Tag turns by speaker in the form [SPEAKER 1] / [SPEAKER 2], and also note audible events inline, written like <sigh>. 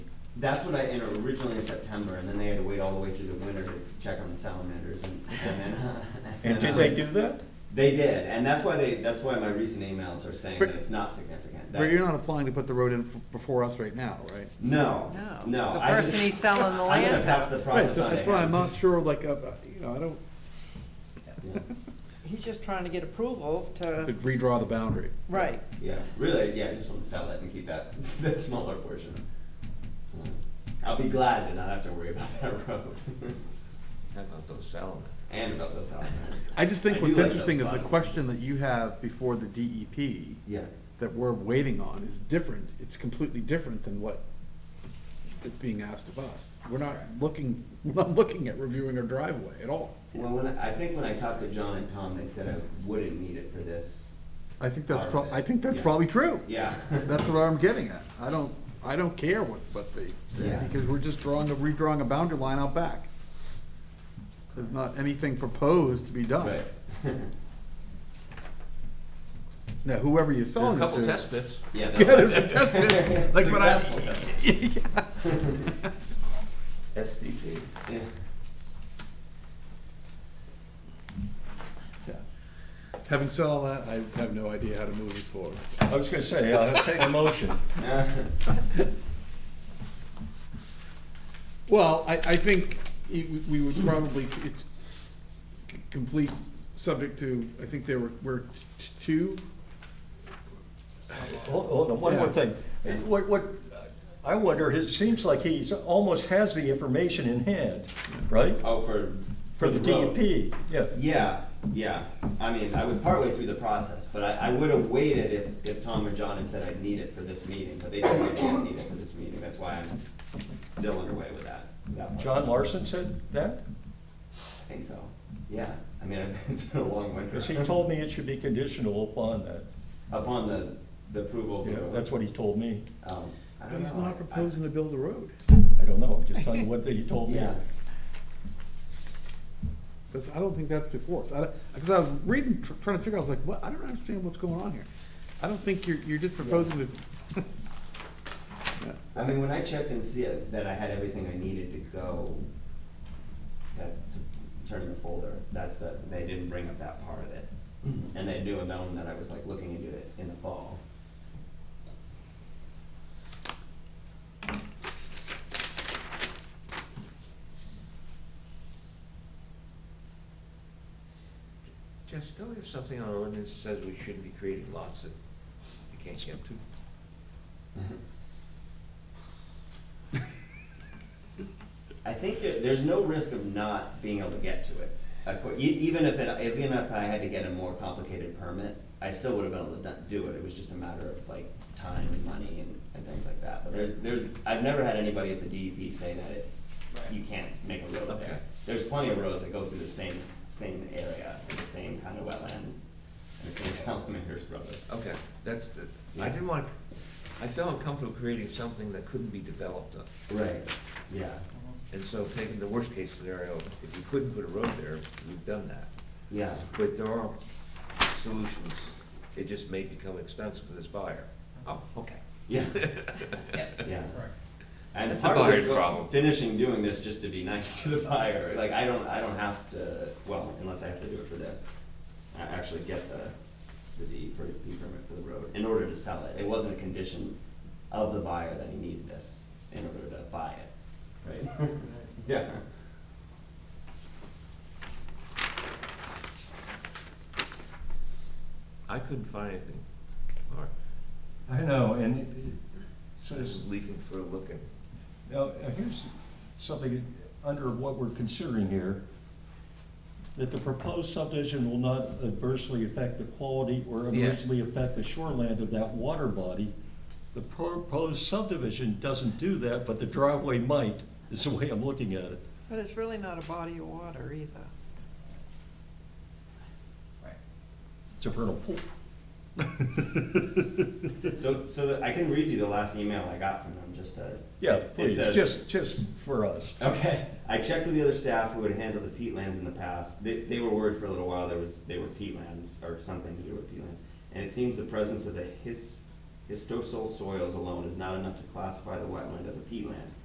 [SPEAKER 1] that's what I entered originally in September, and then they had to wait all the way through the winter to check on the salamanders and, and then. <laughs>
[SPEAKER 2] And did
[SPEAKER 1] um,
[SPEAKER 2] they do that?
[SPEAKER 1] They did, and that's why they, that's why my recent emails are saying that it's not significant.
[SPEAKER 3] But
[SPEAKER 1] That-
[SPEAKER 3] you're not applying to put the road in f- before us right now, right?
[SPEAKER 1] No,
[SPEAKER 4] No.
[SPEAKER 1] no.
[SPEAKER 4] The
[SPEAKER 1] I just-
[SPEAKER 4] person he's selling the
[SPEAKER 1] I'm gonna
[SPEAKER 4] land
[SPEAKER 1] pass
[SPEAKER 4] to.
[SPEAKER 1] the
[SPEAKER 3] Right,
[SPEAKER 1] process
[SPEAKER 3] so
[SPEAKER 1] on to
[SPEAKER 3] that's why I'm
[SPEAKER 1] him.
[SPEAKER 3] not sure, like, uh, you know, I don't,
[SPEAKER 1] Yeah.
[SPEAKER 4] He's just trying to get approval to,
[SPEAKER 3] could redraw the boundary.
[SPEAKER 4] right.
[SPEAKER 1] Yeah, really, yeah, I just want to sell it and keep that, <laughs> that smaller portion. I'll be glad to not have to worry about that road <laughs>
[SPEAKER 5] How about those salamanders?
[SPEAKER 1] and about those salamanders.
[SPEAKER 3] I just think
[SPEAKER 1] I
[SPEAKER 3] what's
[SPEAKER 1] do like
[SPEAKER 3] interesting
[SPEAKER 1] those
[SPEAKER 3] is the
[SPEAKER 1] five.
[SPEAKER 3] question that you have before the DEP
[SPEAKER 1] Yeah,
[SPEAKER 3] that we're waiting on is different, it's completely different than what it's being asked of us. We're not looking, <laughs> we're not looking at reviewing our driveway at all.
[SPEAKER 1] well, when, I I think when I talked to John and Tom, they said I wouldn't need it for this.
[SPEAKER 3] I think that's prob, I think that's
[SPEAKER 1] Yeah.
[SPEAKER 3] probably true.
[SPEAKER 1] Yeah. <laughs>
[SPEAKER 3] That's what I'm getting at. I don't, I don't care what, what they say,
[SPEAKER 1] Yeah.
[SPEAKER 3] because we're just drawing, a redrawing a boundary line out back. There's not anything proposed to be
[SPEAKER 2] Oh.
[SPEAKER 3] done.
[SPEAKER 1] Right.
[SPEAKER 3] Now, whoever you're
[SPEAKER 5] There are
[SPEAKER 3] selling it
[SPEAKER 5] a
[SPEAKER 3] to. <laughs>
[SPEAKER 5] couple test bits.
[SPEAKER 1] <laughs>
[SPEAKER 2] <laughs>
[SPEAKER 1] Yeah. that
[SPEAKER 3] Yeah,
[SPEAKER 1] was-
[SPEAKER 3] there's a
[SPEAKER 1] <laughs>
[SPEAKER 3] test pits, like what I-
[SPEAKER 1] Successful test pits.
[SPEAKER 5] SDGs.
[SPEAKER 1] Yeah.
[SPEAKER 3] Yeah. Having said all that, I have no idea how to move this forward.
[SPEAKER 2] I was gonna say, I'll take a motion.
[SPEAKER 1] Yeah.
[SPEAKER 3] Well, I, I think it, w- we would probably, it's c- complete, subject to, I think there were, were t- two,
[SPEAKER 2] <laughs> Hold hold on, one more
[SPEAKER 3] Yeah.
[SPEAKER 2] thing. What, what, I wonder, it seems like he's, almost has the information in hand, right?
[SPEAKER 1] Oh, for.
[SPEAKER 2] For the E
[SPEAKER 1] road.
[SPEAKER 2] DEP, yeah.
[SPEAKER 1] Yeah, yeah. I mean, I was partway through the process, but I, I would have waited if, if Tom or John had said I'd need it for this meeting, but they told me I didn't need it for this meeting. That's why I'm still underway with that. that part.
[SPEAKER 2] John Larson said that?
[SPEAKER 1] I think so. Yeah. I mean, <laughs> it's been a long winter.
[SPEAKER 2] Because he told me it should be conditional upon that.
[SPEAKER 1] Upon the, the approval of the
[SPEAKER 2] Yeah,
[SPEAKER 1] road.
[SPEAKER 2] that's what he told me.
[SPEAKER 1] Um, I
[SPEAKER 3] but
[SPEAKER 1] don't
[SPEAKER 3] he's
[SPEAKER 1] know. I-
[SPEAKER 3] not proposing to build a road.
[SPEAKER 2] I don't know, I'm just telling you what he
[SPEAKER 1] I-
[SPEAKER 2] told me.
[SPEAKER 1] Yeah.
[SPEAKER 3] That's, I don't think that's before us. I, because I was reading, tr- trying to figure, out, I was like, what, I don't understand what's going on here. I don't think you're, you're just proposing to. Yeah.
[SPEAKER 1] I mean, when I checked and see it, that I had everything I needed to go, that, to turn in the folder, that's that, they didn't bring up that part of it.
[SPEAKER 3] Mm-hmm.
[SPEAKER 1] And they knew known that I was like looking into it in the fall.
[SPEAKER 5] Jess, don't we have something on our ordinance that says we shouldn't be creating lots that you can't get to?
[SPEAKER 1] I think there, there's no risk of not being able to get to it. Of cour- e- even if it, even if I had to get a more complicated permit, I still would have been able to do- do it, it was just a matter of like time and money and, and things like that. But there's, there's, I've never had anybody at the DEP say that it's, you can't make a road
[SPEAKER 5] Okay.
[SPEAKER 1] there. There's plenty of roads that go through the same, same area, and the same kind of wetland, and the same <laughs> salamanders, brother.
[SPEAKER 5] Okay, that's, the- I
[SPEAKER 1] Yeah.
[SPEAKER 5] didn't want, I felt uncomfortable creating something that couldn't be developed on.
[SPEAKER 1] Right, yeah,
[SPEAKER 5] And so taking the worst case scenario, if you couldn't put a road there, we've done that.
[SPEAKER 1] yeah,
[SPEAKER 5] But there are solutions. It just may become expensive for this buyer. Oh, okay. <laughs>
[SPEAKER 1] yeah, yeah. And
[SPEAKER 5] That's
[SPEAKER 1] part
[SPEAKER 5] the
[SPEAKER 1] of it
[SPEAKER 5] buyer's
[SPEAKER 1] was
[SPEAKER 5] problem.
[SPEAKER 1] Finishing doing this just to be <laughs> nice to the buyer, like, I don't, I don't have to, well, unless I have to do it for this. I actually get the, the D per- D permit for the road in order to sell it. It wasn't a condition of the buyer that he needed this in order to buy it, right? <laughs> Yeah.
[SPEAKER 5] I couldn't find anything. All right,
[SPEAKER 2] I know, and it- it
[SPEAKER 5] this
[SPEAKER 2] says,
[SPEAKER 5] is leafing for a look and
[SPEAKER 2] now, uh, here's something under what we're considering here. That the proposed subdivision will not adversely affect the quality or
[SPEAKER 5] Yeah.
[SPEAKER 2] adversely affect the shoreland of that water body. The proposed subdivision doesn't do that, but the driveway might, is the way I'm looking at it.
[SPEAKER 4] But it's really not a body of water either.
[SPEAKER 2] It's a vernal pool.
[SPEAKER 3] <laughs>
[SPEAKER 1] So, so that, I can read you the last email I got from them, just to
[SPEAKER 2] Yeah, please,
[SPEAKER 1] says-
[SPEAKER 2] just, just for us.
[SPEAKER 1] Okay. I checked with the other staff who had handled the peatlands in the past. They, they were worried for a little while there was they were peatlands or something to do with peatlands. And it seems the presence of the his histosol soils alone is not enough to classify the wetland as a peatland.